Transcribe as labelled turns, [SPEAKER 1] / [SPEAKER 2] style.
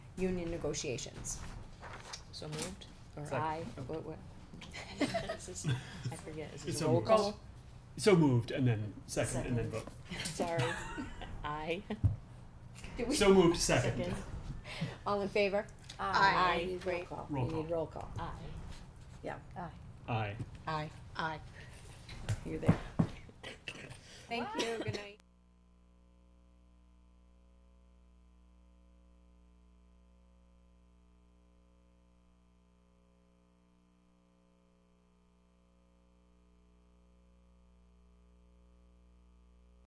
[SPEAKER 1] union negotiations.
[SPEAKER 2] So moved? Or
[SPEAKER 3] Second.
[SPEAKER 1] I, what, what?
[SPEAKER 2] Is this- I forget, is
[SPEAKER 3] um, It's
[SPEAKER 2] this a
[SPEAKER 3] so
[SPEAKER 2] roll
[SPEAKER 3] moved.
[SPEAKER 2] call?
[SPEAKER 3] So moved, and then second, and then vote.
[SPEAKER 2] Sorry. Aye.
[SPEAKER 1] Did we-
[SPEAKER 3] So moved, second.
[SPEAKER 2] Second.
[SPEAKER 1] All in favor?
[SPEAKER 2] Aye.
[SPEAKER 1] Aye, great.
[SPEAKER 3] Roll
[SPEAKER 1] We need
[SPEAKER 3] call.
[SPEAKER 1] roll call.
[SPEAKER 2] Aye.
[SPEAKER 3] Aye.
[SPEAKER 1] Aye.
[SPEAKER 2] Aye.
[SPEAKER 1] You're there. Thank you, good night.